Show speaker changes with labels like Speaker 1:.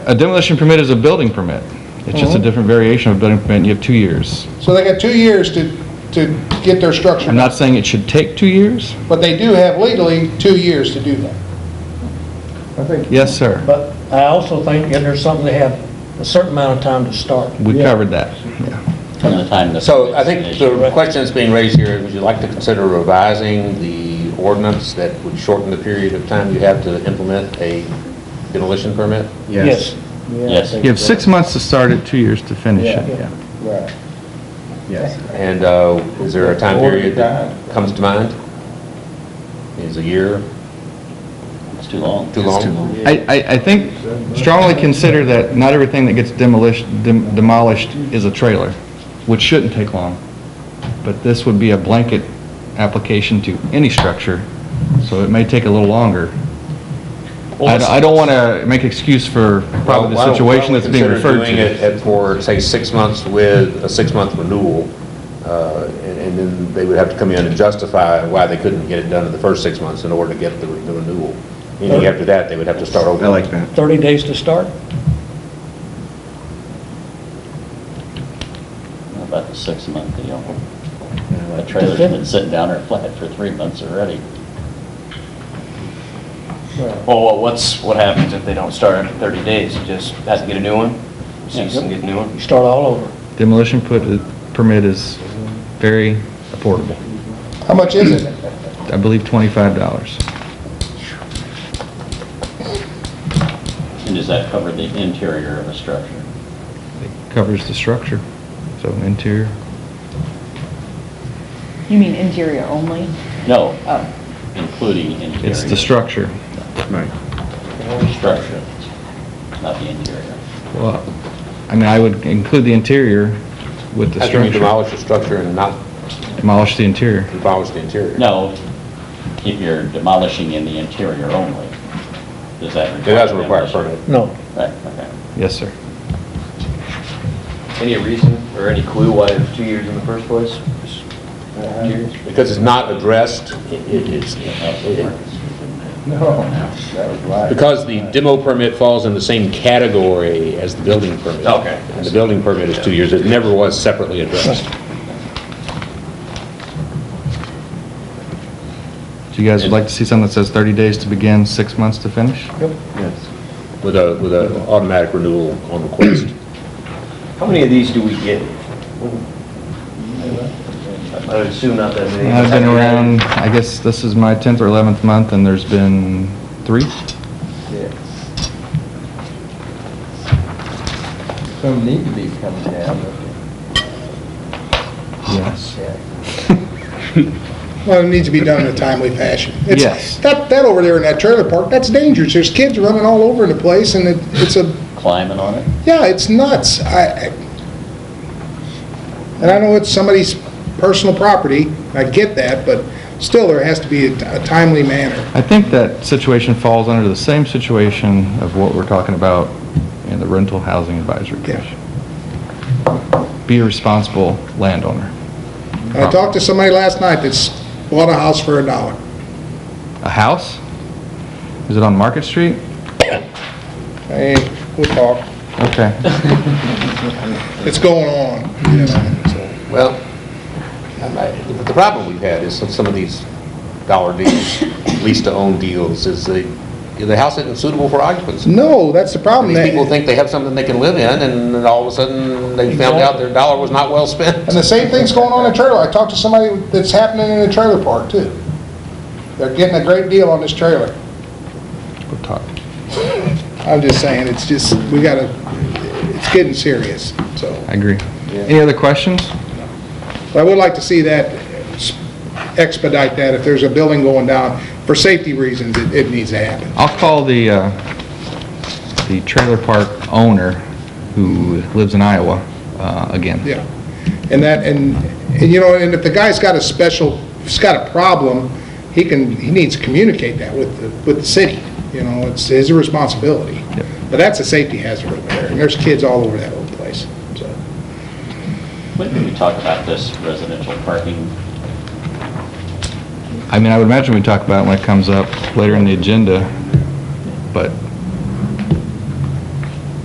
Speaker 1: A demolition permit is a building permit. It's just a
Speaker 2: Mm-hmm.
Speaker 1: different variation of a building permit, and you have two years.
Speaker 3: So they got two years to, to get their structure,
Speaker 1: I'm not saying it should take two years.
Speaker 3: but they do have legally two years to do that.
Speaker 2: I think,
Speaker 1: Yes, sir.
Speaker 4: But I also think that there's something they have a certain amount of time to start.
Speaker 1: We
Speaker 2: Yeah.
Speaker 1: covered that. Yeah.
Speaker 5: from the time the...
Speaker 6: So I think the question that's being raised here, would you like to consider revising the ordinance that would shorten the period of time you have to implement a demolition permit?
Speaker 4: Yes.
Speaker 2: yeah, I
Speaker 5: Yes.
Speaker 2: think
Speaker 1: You have
Speaker 2: so.
Speaker 1: six months to start it, two years to finish
Speaker 2: Yeah.
Speaker 1: it, yeah.
Speaker 2: Right. Yes.
Speaker 6: And uh, is there a time period that comes to mind? Is a year
Speaker 5: It's too long.
Speaker 6: too long?
Speaker 1: I, I, I think strongly consider that not everything that gets demolished, dem- demolished is a trailer, which shouldn't take long. But this would be a blanket application to any structure, so it may take a little longer. I, I don't want to make excuse for probably the
Speaker 6: Why don't-
Speaker 1: situation that's being referred
Speaker 6: Why don't we consider
Speaker 1: to.
Speaker 6: doing it at- for, say, six months with a six-month renewal, uh, and and then they would have to come in and justify why they couldn't get it done in the first six months in order to get the re- the renewal. Meaning after that, they would have to start over.
Speaker 1: that.
Speaker 4: 30 days to start?
Speaker 5: About the six-month deal. A trailer's been sitting down there flat for three months already.
Speaker 7: oh, Well, what- what's, what happens if they don't start after 30 days? You Just have to get a new one? Cease and get a new one?
Speaker 4: You start all over.
Speaker 1: Demolition put, permit is very affordable.
Speaker 3: How much is it?
Speaker 1: I believe twenty-five dollars.
Speaker 5: And does that cover the interior of a structure?
Speaker 1: It covers the structure, so interior.
Speaker 8: You mean interior only?
Speaker 5: No,
Speaker 8: Oh,
Speaker 5: including interior.
Speaker 1: It's the structure.
Speaker 5: Structure, not the interior.
Speaker 1: Well, I mean, I would include the interior with the
Speaker 6: How can you
Speaker 1: structure.
Speaker 6: demolish the structure and not
Speaker 1: Demolish the interior.
Speaker 6: demolish the interior?
Speaker 5: No, if you're demolishing in the interior only, does that
Speaker 6: It
Speaker 5: require...
Speaker 6: doesn't require a permit.
Speaker 5: demolition?
Speaker 4: No.
Speaker 5: Right, okay.
Speaker 1: Yes, sir.
Speaker 7: Any reason or any clue why it was two years in the first place? Just
Speaker 2: Uh,
Speaker 7: two years?
Speaker 6: Because it's not addressed,
Speaker 2: No, that was right.
Speaker 6: because the demo permit falls in the same category as the building permit.
Speaker 7: Okay.
Speaker 6: And the building permit is two years. It never was separately addressed.
Speaker 1: Do you guys would like to see something that says thirty days to begin, six months to finish?
Speaker 6: with a, with an automatic renewal on request.
Speaker 7: How many of these do we get?
Speaker 2: Mm-hmm.
Speaker 7: I would assume not that many.
Speaker 1: I've been around, I guess this is my tenth or eleventh month, and there's been three?
Speaker 2: Some need to be coming down.
Speaker 1: Yes.
Speaker 3: Well, it needs to be done in a timely fashion. It's-
Speaker 1: Yes.
Speaker 3: That, that over there in that trailer park, that's dangerous. There's kids running all over the place and it, it's a,
Speaker 5: Climbing on it?
Speaker 3: yeah, it's nuts. I, I- and I know it's somebody's personal property, I get that, but still, there has to be a timely manner.
Speaker 1: I think that situation falls under the same situation of what we're talking about in the rental housing advisory
Speaker 3: Yeah.
Speaker 1: commission. Be a responsible landowner.
Speaker 3: And I talked to somebody last night that's bought a house for a dollar.
Speaker 1: A house? Is it on Market Street?
Speaker 3: Hey, we'll talk.
Speaker 1: Okay.
Speaker 3: It's going on, you know, so.
Speaker 6: Well, I- I- the problem we've had is some- some of these dollar deals, lease-to-own deals, is the, the house isn't suitable for occupancy.
Speaker 3: No, that's the
Speaker 6: I
Speaker 3: problem.
Speaker 6: mean, people think they have something they can live in, and then all of a sudden, they found out their dollar was not well spent.
Speaker 3: And the same thing's going on in trailer. I talked to somebody that's happening in a trailer park too. They're getting a great deal on this trailer.
Speaker 1: We'll talk.
Speaker 3: I'm just saying, it's just, we gotta, it's getting serious, so.
Speaker 1: I agree. Any other questions?
Speaker 3: But I would like to see that expedite that. If there's a building going down, for safety reasons, it, it needs to happen.
Speaker 1: I'll call the, uh, the trailer park owner who lives in Iowa, uh, again.
Speaker 3: Yeah. And that, and, and you know, and if the guy's got a special, he's got a problem, he can, he needs to communicate that with, the with the city. You know, it's his responsibility.
Speaker 1: Yep.
Speaker 3: But that's a safety hazard over there, and there's kids all over that old place, so.
Speaker 5: When did we talk about this residential parking?
Speaker 1: I mean, I would imagine we talk about it when it comes up later in the agenda, but